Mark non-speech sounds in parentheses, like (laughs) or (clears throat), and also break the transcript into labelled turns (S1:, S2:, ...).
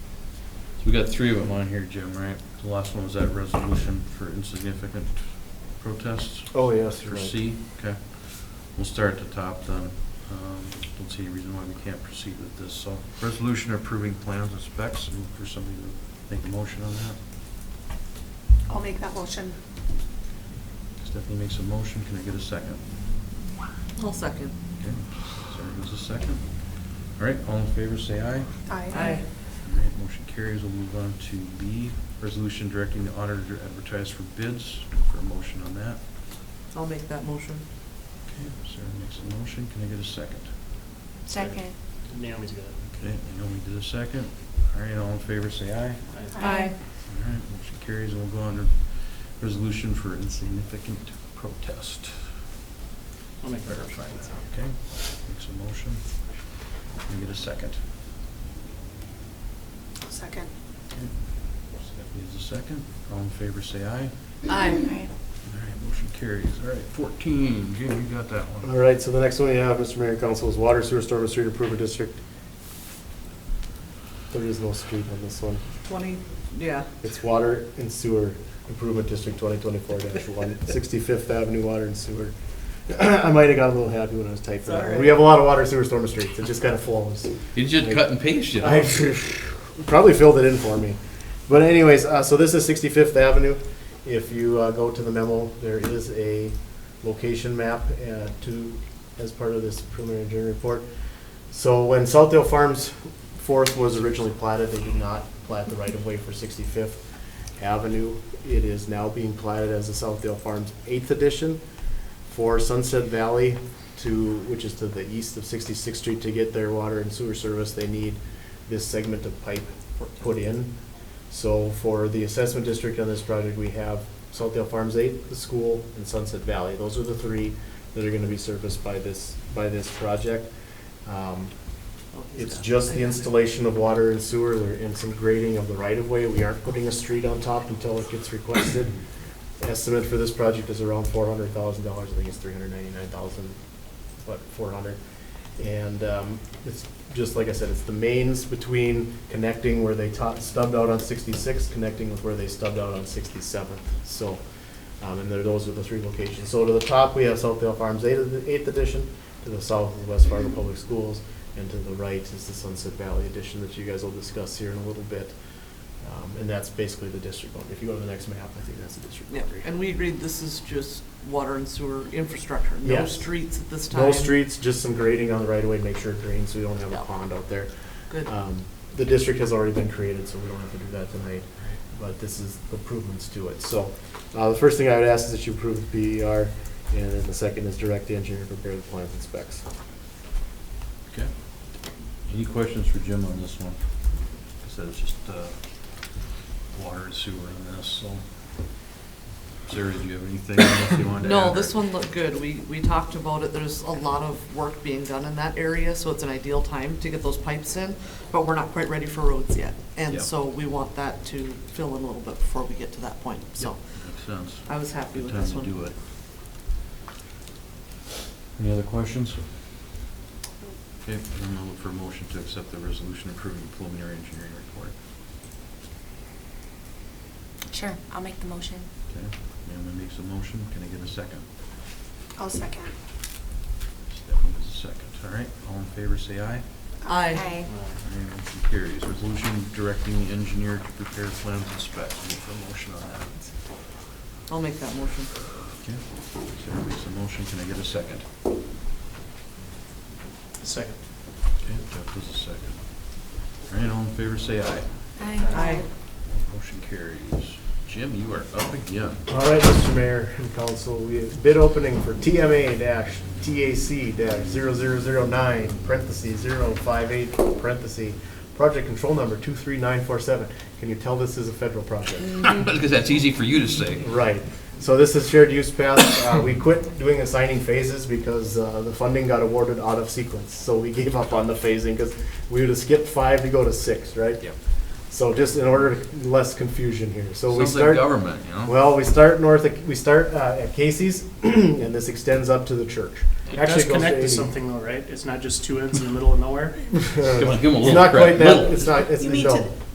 S1: We got three of them on here, Jim, right? The last one was that resolution for insignificant protests
S2: Oh, yes,
S1: for C, okay. We'll start at the top then. Um, Don't see any reason why we can't proceed with this, so. Resolution approving plans and specs, and for somebody to make a motion on that.
S3: I'll make that motion.
S1: Stephanie makes a motion, can I get a second?
S4: I'll second.
S1: Okay, Sarah gives a second. All right, all in favor, say aye.
S3: Aye.
S1: All right, motion carries. We'll move on to B, resolution directing the auditor to advertise for bids. For a motion on that.
S4: I'll make that motion.
S1: Okay, Sarah makes a motion. Can I get a second?
S3: Second.
S5: Naomi's got it.
S1: Okay, I know we did a second. All right, all in favor, say aye.
S5: I-
S3: Aye.
S1: All right, motion carries. We'll go on to resolution for insignificant protest.
S5: I'll make that
S1: Verify
S5: motion.
S1: that, okay? Makes a motion. Can I get a second?
S3: Second.
S1: Okay, Stephanie is a second. All in favor, say aye.
S4: Aye.
S1: All right, motion carries. All right, fourteen, Jim, you got that one.
S2: All right, so the next one you have, Mr. Mayor and Council, is Water Sewer Storm and Street Improvement District. There is no street on this one.
S4: Twenty, yeah.
S2: It's Water and Sewer Improvement District twenty twenty-four
S1: (laughs)
S2: dash one, sixty-fifth Avenue Water and Sewer. (clears throat) I might have got a little happy when I was typing
S4: It's all
S2: that one.
S4: right.
S2: We have a lot of water sewer storm and streets. It just kind of flows.
S1: You just cut and paste it.
S2: I (laughs) probably filled it in for me. But anyways, uh, so this is 65th Avenue. If you uh, go to the memo, there is a location map uh, to, as part of this preliminary engineering report. So when Southdale Farms Fourth was originally platted, they did not plat the right-of-way for 65th Avenue. It is now being platted as the Southdale Farms Eighth Edition for Sunset Valley to, which is to the east of 66th Street, to get their water and sewer service, they need this segment of pipe put in. So for the assessment district on this project, we have Southdale Farms Eight, the school, and Sunset Valley. Those are the three that are gonna be serviced by this, by this project. Um, It's just the installation of water and sewer, there, and some grading of the right-of-way. We aren't putting a street on top until it gets requested. Estimate for this project is around four hundred thousand dollars, I think it's three hundred ninety-nine thousand, but four hundred. And, um, it's, just like I said, it's the mains between connecting where they ta- stubbed out on sixty-six, connecting with where they stubbed out on sixty-seventh, so. Um, and there, those are the three locations. So to the top, we have Southdale Farms Eighth, Eighth Edition, to the south is West Fargo Public Schools, and to the right is the Sunset Valley Edition that you guys will discuss here in a little bit. Um, and that's basically the district boundary. If you go to the next map, I think that's the district
S4: Yeah,
S2: boundary.
S4: and we agreed this is just water and sewer infrastructure, no
S2: Yes.
S4: streets at this time.
S2: No streets, just some grading on the right of way, make sure it drains, so we don't have a
S4: Yeah.
S2: pond out there.
S4: Good.
S2: Um, The district has already been created, so we don't have to do that tonight, but this is improvements to it. So uh, the first thing I would ask is that you approve the PER, and then the second is direct the engineer to prepare the plans and specs.
S1: Okay. Any questions for Jim on this one? I said it's just, uh, water and sewer in this, so. Sarah, do you have anything else you wanted to add?
S4: No, this one looked good. We, we talked about it. There's a lot of work being done in that area, so it's an ideal time to get those pipes in, but we're not quite ready for roads yet. And
S1: Yep.
S4: so we want that to fill in a little bit before we get to that point, so
S1: Makes sense.
S4: I was happy
S1: Good
S4: with
S1: time
S4: this
S1: to
S4: one.
S1: do it. Any other questions? Okay, then I'll look for a motion to accept the resolution approving preliminary engineering report.
S6: Sure, I'll make the motion.
S1: Okay, Naomi makes a motion, can I get a second?
S3: I'll second.
S1: Stephanie is a second, all right, all in favor, say aye.
S4: Aye.
S6: Aye.
S5: Aye.
S1: All right, Motion carries. Resolution directing the engineer to prepare plans and specs. Look for a motion on that.
S4: I'll make that motion.
S1: Okay. Sarah makes a motion. Can I get a second?
S5: Second.
S1: Okay, Jeff does a second. All right, all in favor, say aye.
S4: Aye.
S1: Motion carries. Jim, you are up again.
S2: All right, Mr. Mayor and Council, we have bid opening for TMA dash TAC dash zero zero zero nine, parentheses, zero five eight, parentheses, project control number two three nine four seven. Can you tell this is a federal project?
S1: Because that's easy for you to say.
S2: Right. So this is shared use path. Uh, we quit doing assigning phases because, uh, the funding got awarded out of sequence. So we gave up on the phasing because we would have skipped five to go to six, right?
S1: Yep.
S2: So just in order, to less confusion here. So we
S1: Sounds like
S2: start.
S1: government, you know?
S2: Well, we start north, of- we start uh, at Casey's, (clears throat) and this extends up to the church.
S5: It
S2: Actually,
S5: does
S2: it goes
S5: connect to
S2: 80. (laughs)
S5: something though, right? It's not just two ends in the middle of nowhere?
S1: Give him a
S2: It's
S1: little
S2: not
S1: credit.
S2: quite that,
S1: Little.
S2: it's not, it's,
S3: You mean
S2: no.
S3: to-